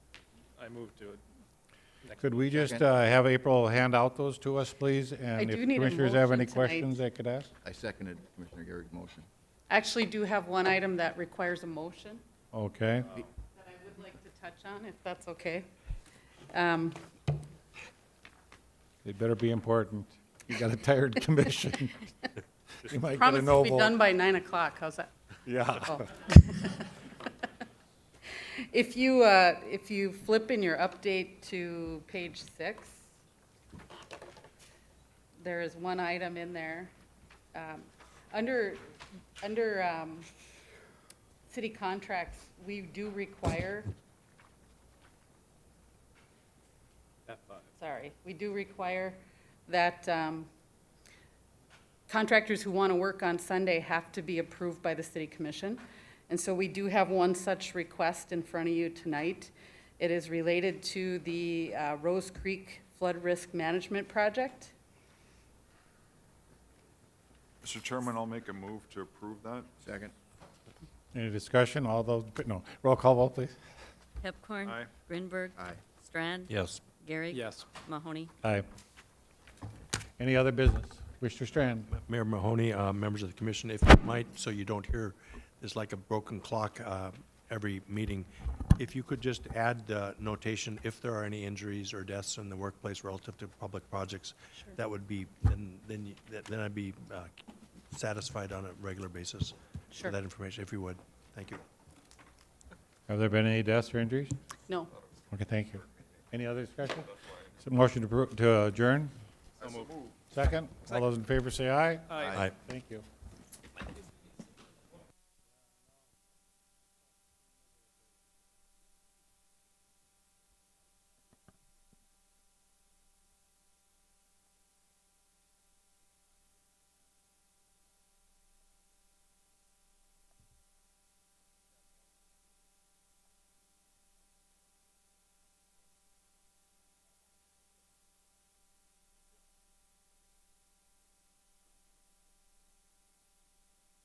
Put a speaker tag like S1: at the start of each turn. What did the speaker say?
S1: I moved to it. Next
S2: Could we just
S3: Second.
S2: uh, have April hand out those to us, please? And
S4: do
S2: if
S4: need a
S2: commissioners have any
S4: motion tonight.
S2: questions they could ask?
S3: I seconded Commissioner Garrick's motion.
S4: Actually do have one item that requires a motion
S2: Okay.
S4: that I would like to touch on, if that's okay. Um,
S2: It better be important. You got a tired commission. You might get a
S4: Promise to be
S2: no vote.
S4: done by 9 o'clock, how's that?
S2: Yeah.
S4: Oh. If you, uh, if you flip in your update to page six, there is one item in there. Um, Under, under um, city contracts, we do require,
S1: F five.
S4: sorry, we do require that um, contractors who want to work on Sunday have to be approved by the city commission. And so we do have one such request in front of you tonight. It is related to the uh, Rose Creek Flood Risk Management Project.
S5: Mr. Chairman, I'll make a move to approve that.
S3: Second?
S2: Any discussion? All those, no. Roll call vote, please.
S6: Pepcorn.
S5: Aye.
S6: Grinberg.
S3: Aye.
S6: Strand.
S2: Yes.
S6: Gary.
S1: Yes.
S6: Mahoney.
S2: Aye. Any other business? Mr. Strand?
S7: Mayor Mahoney, uh, members of the commission, if you might, so you don't hear, it's like a broken clock uh, every meeting, if you could just add the notation, if there are any injuries or deaths in the workplace relative to public projects, that would be, then, then you- that- then I'd be uh, satisfied on a regular basis
S4: Sure.
S7: with that information, if you would. Thank you.
S2: Have there been any deaths or injuries?
S4: No,
S2: Okay, thank you. Any other discussion? So Motion to appro- to adjourn? Second? All those in favor say aye.
S1: Aye.
S7: Aye.
S2: Thank you.